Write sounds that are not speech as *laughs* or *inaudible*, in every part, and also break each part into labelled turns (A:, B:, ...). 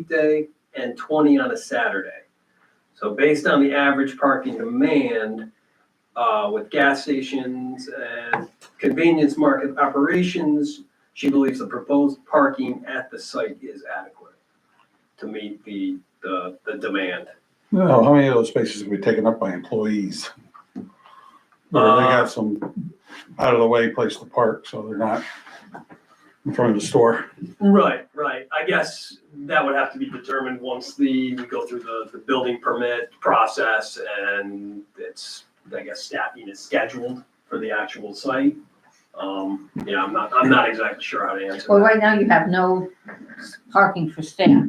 A: weekday and twenty on a Saturday. So based on the average parking demand, uh, with gas stations and convenience market operations, she believes the proposed parking at the site is adequate to meet the, the, the demand.
B: No, Oh, how many of those spaces can be taken up by employees? Or they
A: Uh,
B: got some out of the way place to park, so they're not in front of the store.
A: Right, right. I guess that would have to be determined once the, we go through the, the building permit process and it's, I guess, staffing is scheduled for the actual site. Um, yeah, I'm not, I'm not exactly sure how to answer
C: Well,
A: that.
C: right now you have no s- parking for staff.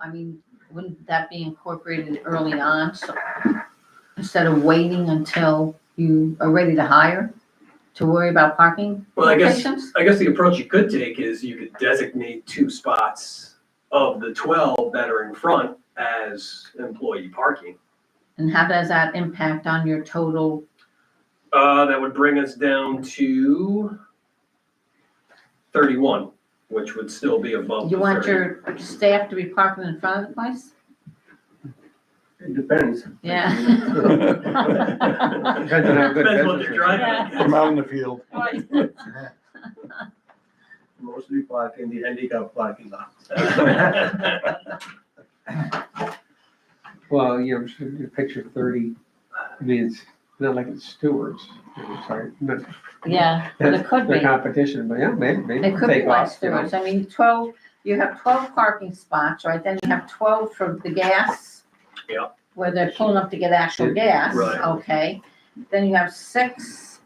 C: I mean, wouldn't that be incorporated early on, so, instead of waiting until you are ready to hire to worry about parking
A: Well, I guess,
C: locations?
A: I guess the approach you could take is you could designate two spots of the twelve that are in front as employee parking.
C: And how does that impact on your total,
A: Uh, that would bring us down to thirty-one, which would still be above the
C: you want
A: 30.
C: your staff to be parking in front of the place?
D: It
C: *laughs*
D: depends.
C: Yeah.
D: Depends on how good
A: Depends what
D: business
A: they're
D: is.
A: driving.
C: Yeah.
A: at.
B: From out in the field.
D: Mostly park in the handicap parking lot.
E: Well, yeah, I'm sure the picture thirty, I mean, it's not like it's Stewart's, I'm sorry, not,
C: Yeah, but it could
E: the
C: be.
E: competition, but yeah, maybe, maybe
C: It
E: it'll
C: could be
E: take
C: like
E: off. you know.
C: Stewart's, I mean, twelve, you have twelve parking spots, right, then you have twelve for the gas.
A: Yep.
C: Where they're pulling up to get actual gas,
A: Right.
C: okay, then you have six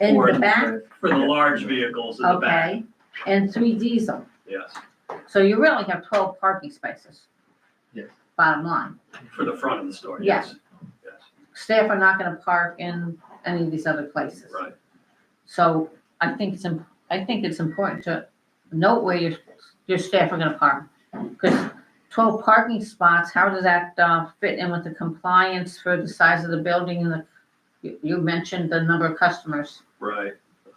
C: in
A: Or
C: the
A: in
C: back,
A: For the large vehicles in the back,
C: okay, and three diesel,
A: yes,
C: so you really have twelve parking spaces.
D: Yes.
C: Bottom line,
A: for the front of the store,
C: Yeah.
A: yes. Yes,
C: staff are not gonna park in any of these other places.
A: right,
C: So I think it's, im- I think it's important to note where your, your staff are gonna park. Because twelve parking spots, how does that, uh, fit in with the compliance for the size of the building and the, you, you mentioned the number of customers.
A: right.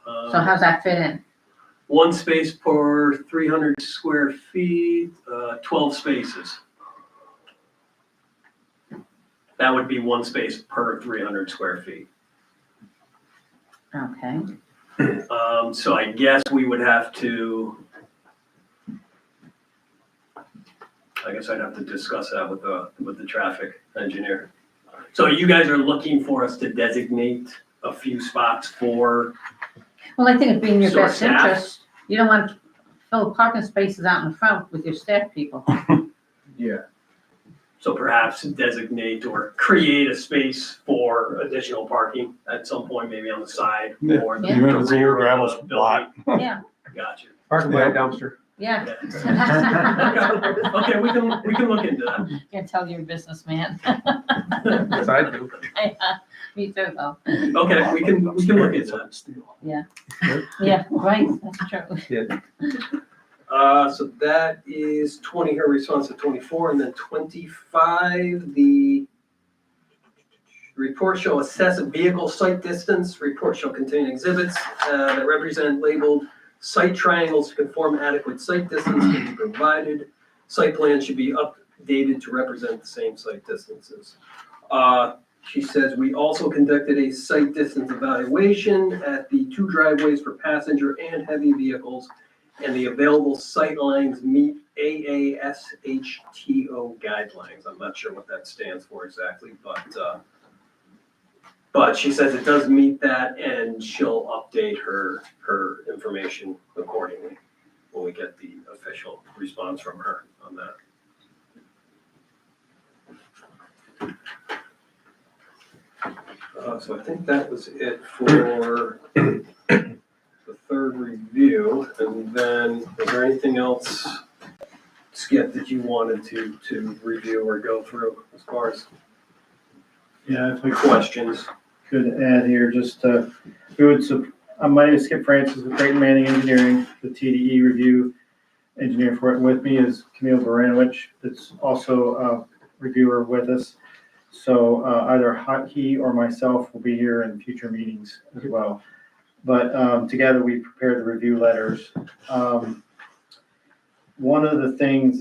A: Um,
C: So how's that fit in?
A: One space per three hundred square feet, uh, twelve spaces. That would be one space per three hundred square feet.
C: Okay,
A: Um, so I guess we would have to. I guess I'd have to discuss that with the, with the traffic engineer. So you guys are looking for us to designate a few spots for,
C: well, I think it'd be in your
A: So our
C: best
A: staff-
C: interest, you don't want to fill parking spaces out in front with your staff people.
D: Yeah,
A: so perhaps designate or create a space for additional parking at some point, maybe on the side
B: Yeah.
A: or the
C: Yeah.
A: the
B: Even if it's a
A: rear
B: gravel
A: of the
B: lot.
A: building.
C: Yeah.
A: Got you.
E: Parking by a dumpster.
C: *laughs* Yeah.
A: *laughs* Okay, we can, we can look into that.
C: Can tell you're a businessman. *laughs*
E: Yes, I do.
C: Me too, though.
A: Okay, we can, we can look into that.
C: Yeah, right, that's true.
A: Uh, so that is twenty, her response to twenty-four, and then twenty-five, the report shall assess a vehicle site distance, report shall contain exhibits, uh, that represent labeled site triangles to conform adequate site distance can be provided. Site plans should be updated to represent the same site distances. Uh, she says, we also conducted a site distance evaluation at the two driveways for passenger and heavy vehicles and the available sight lines meet AASHTO guidelines. I'm not sure what that stands for exactly, but, uh, but she says it does meet that and she'll update her, her information accordingly when we get the official response from her on that. Uh, so I think that was it for the third review, and then is there anything else, Skip, that you wanted to, to review or go through as far as
F: Yeah, if we
A: questions?
F: could add here, just, uh, we would, sup- uh, my name is Skip Francis with Creighton Manning Engineering, the TDE review engineer for it. And With me is Camille Baranowicz, that's also a reviewer with us. So, uh, either hi- he or myself will be here in future meetings as well. But, um, together we prepared the review letters. Um, One of the things